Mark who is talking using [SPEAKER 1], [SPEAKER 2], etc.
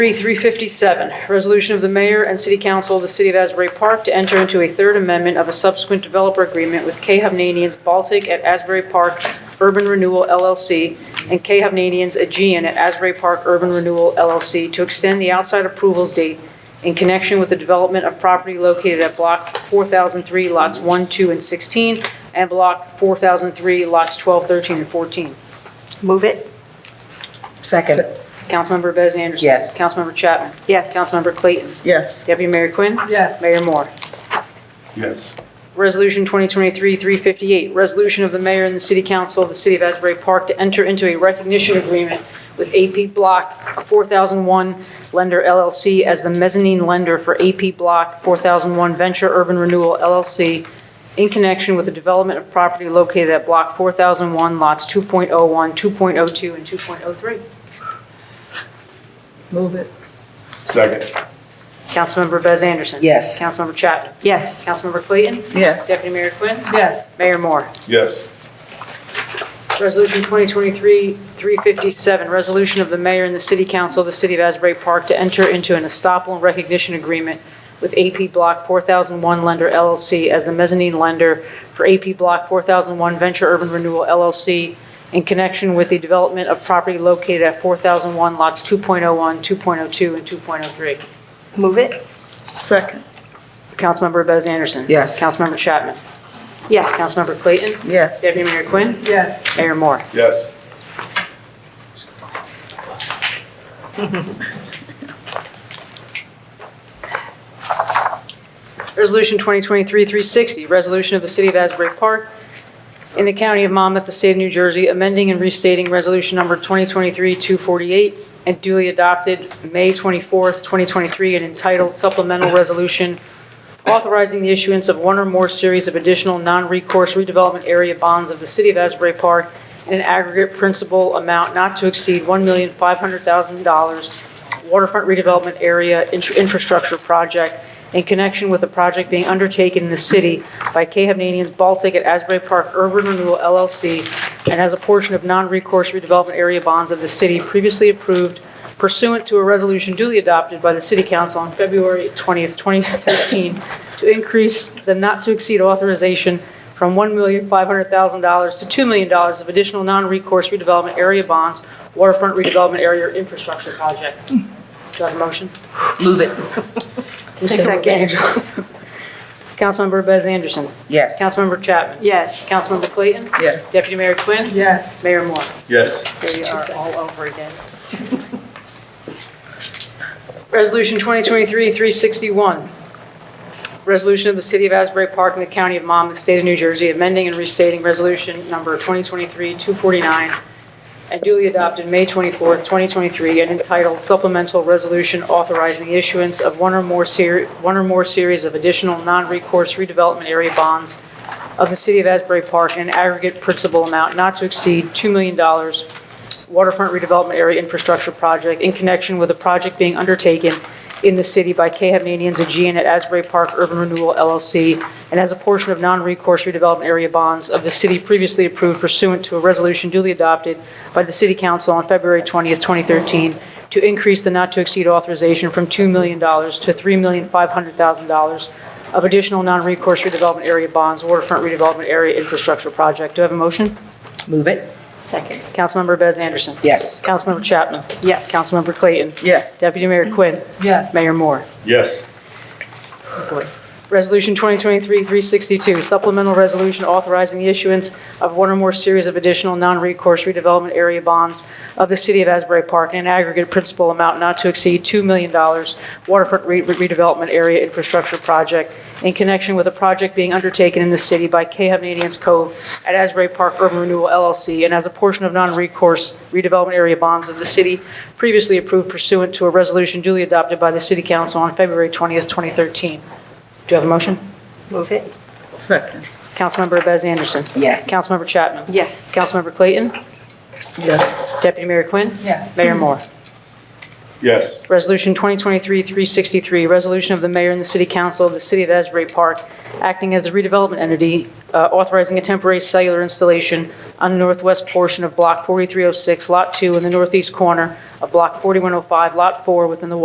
[SPEAKER 1] 3357, resolution of the mayor and city council of the city of Asbury Park to enter into a third amendment of a subsequent developer agreement with K. Hovnanians Baltic at Asbury Park Urban Renewal LLC and K. Hovnanians Aegean at Asbury Park Urban Renewal LLC to extend the outside approvals date in connection with the development of property located at Block 4003, lots 1, 2, and 16, and Block 4003, lots 12, 13, and 14.
[SPEAKER 2] Move it.
[SPEAKER 3] Second.
[SPEAKER 1] Councilmember Bez Anderson.
[SPEAKER 3] Yes.
[SPEAKER 1] Councilmember Chapman.
[SPEAKER 2] Yes.
[SPEAKER 1] Councilmember Clayton.
[SPEAKER 3] Yes.
[SPEAKER 1] Deputy Mayor Quinn?
[SPEAKER 2] Yes.
[SPEAKER 1] Mayor Moore.
[SPEAKER 4] yes,
[SPEAKER 1] Resolution 2023-358, resolution of the mayor and the city council of the city of Asbury Park to enter into a recognition agreement with AP Block 4001 Lender LLC as the mezzanine lender for AP Block 4001 Venture Urban Renewal LLC in connection with the development of property located at Block 4001, lots 2.01, 2.02, and 2.03.
[SPEAKER 3] Move it.
[SPEAKER 4] second,
[SPEAKER 1] Councilmember Bez Anderson.
[SPEAKER 3] Yes.
[SPEAKER 1] Councilmember Chapman.
[SPEAKER 2] Yes.
[SPEAKER 1] Councilmember Clayton.
[SPEAKER 3] Yes.
[SPEAKER 1] Deputy Mayor Quinn.
[SPEAKER 2] Yes.
[SPEAKER 1] Mayor Moore.
[SPEAKER 4] yes,
[SPEAKER 1] Resolution 2023-357, resolution of the mayor and the city council of the city of Asbury Park to enter into an estoppel and recognition agreement with AP Block 4001 Lender LLC as the mezzanine lender for AP Block 4001 Venture Urban Renewal LLC in connection with the development of property located at 4001 lots 2.01, 2.02, and 2.03.
[SPEAKER 2] Move it.
[SPEAKER 3] Second.
[SPEAKER 1] Councilmember Bez Anderson.
[SPEAKER 3] Yes.
[SPEAKER 1] Councilmember Chapman.
[SPEAKER 2] Yes.
[SPEAKER 1] Councilmember Clayton.
[SPEAKER 3] Yes.
[SPEAKER 1] Deputy Mayor Quinn.
[SPEAKER 2] Yes.
[SPEAKER 1] Mayor Moore.
[SPEAKER 4] yes,
[SPEAKER 1] Resolution 2023-360, resolution of the City of Asbury Park in the County of Monmouth, the State of New Jersey, amending and restating Resolution Number 2023-248 and duly adopted May 24th, 2023, and entitled Supplemental Resolution authorizing the issuance of one or more series of additional non-recourse redevelopment area bonds of the City of Asbury Park in an aggregate principal amount not to exceed $1,500,000 waterfront redevelopment area in- infrastructure project in connection with a project being undertaken in the city by K. Hovnanians Baltic at Asbury Park Urban Renewal LLC and as a portion of non-recourse redevelopment area bonds of the city previously approved pursuant to a resolution duly adopted by the City Council on February 20th, 2013, to increase the not-to-exceed authorization from $1,500,000 to $2 million of additional non-recourse redevelopment area bonds, waterfront redevelopment area infrastructure project. Do I have a motion?
[SPEAKER 3] Move it.
[SPEAKER 2] Second.
[SPEAKER 1] Councilmember Bez Anderson.
[SPEAKER 3] Yes.
[SPEAKER 1] Councilmember Chapman.
[SPEAKER 2] Yes.
[SPEAKER 1] Councilmember Clayton.
[SPEAKER 3] Yes.
[SPEAKER 1] Deputy Mayor Quinn.
[SPEAKER 2] Yes.
[SPEAKER 1] Mayor Moore.
[SPEAKER 4] yes,
[SPEAKER 1] They are all
[SPEAKER 2] over again.
[SPEAKER 1] Resolution 2023-361, resolution of the City of Asbury Park and the County of Monmouth, State of New Jersey, amending and restating Resolution Number 2023-249, and duly adopted May 24, 2023, and entitled Supplemental Resolution Authorizing the Issuance of One or More Series, One or More Series of Additional Non-Recourse Redevelopment Area Bonds of the City of Asbury Park in an aggregate principal amount not to exceed $2 million waterfront redevelopment area infrastructure project in connection with a project being undertaken in the city by K. Hovnanians Aegean at Asbury Park Urban Renewal LLC, and as a portion of non-recourse redevelopment area bonds of the city previously approved pursuant to a resolution duly adopted by the city council on February 20th, 2013, to increase the not-to-exceed authorization from $2 million to $3,500,000 of additional non-recourse redevelopment area bonds, waterfront redevelopment area infrastructure project. Do I have a motion?
[SPEAKER 3] Move it.
[SPEAKER 2] Second.
[SPEAKER 1] Councilmember Bez Anderson.
[SPEAKER 3] Yes.
[SPEAKER 1] Councilmember Chapman.
[SPEAKER 2] Yes.
[SPEAKER 1] Councilmember Clayton.
[SPEAKER 3] Yes.
[SPEAKER 1] Deputy Mayor Quinn.
[SPEAKER 2] Yes.
[SPEAKER 1] Mayor Moore.
[SPEAKER 4] yes,
[SPEAKER 1] Resolution 2023-362, supplemental resolution authorizing the issuance of one or more series of additional non-recourse redevelopment area bonds of the City of Asbury Park in an aggregate principal amount not to exceed $2 million waterfront re- redevelopment area infrastructure project in connection with a project being undertaken in the city by K. Hovnanians Cove at Asbury Park Urban Renewal LLC, and as a portion of non-recourse redevelopment area bonds of the city previously approved pursuant to a resolution duly adopted by the City Council on February 20th, 2013. Do you have a motion?
[SPEAKER 2] Move it.
[SPEAKER 3] Second.
[SPEAKER 1] Councilmember Bez Anderson.
[SPEAKER 3] Yes.
[SPEAKER 1] Councilmember Chapman.
[SPEAKER 2] Yes.
[SPEAKER 1] Councilmember Clayton.
[SPEAKER 3] Yes.
[SPEAKER 1] Deputy Mayor Quinn.
[SPEAKER 2] Yes.
[SPEAKER 1] Mayor Moore.
[SPEAKER 4] Yes.
[SPEAKER 1] Resolution 2023-363, resolution of the mayor and the city council of the city of Asbury Park acting as the redevelopment entity, uh, authorizing a temporary cellular installation on the northwest oh portion of Block 4306, Lot 2, in the northeast corner of Block 4105, Lot 4, within the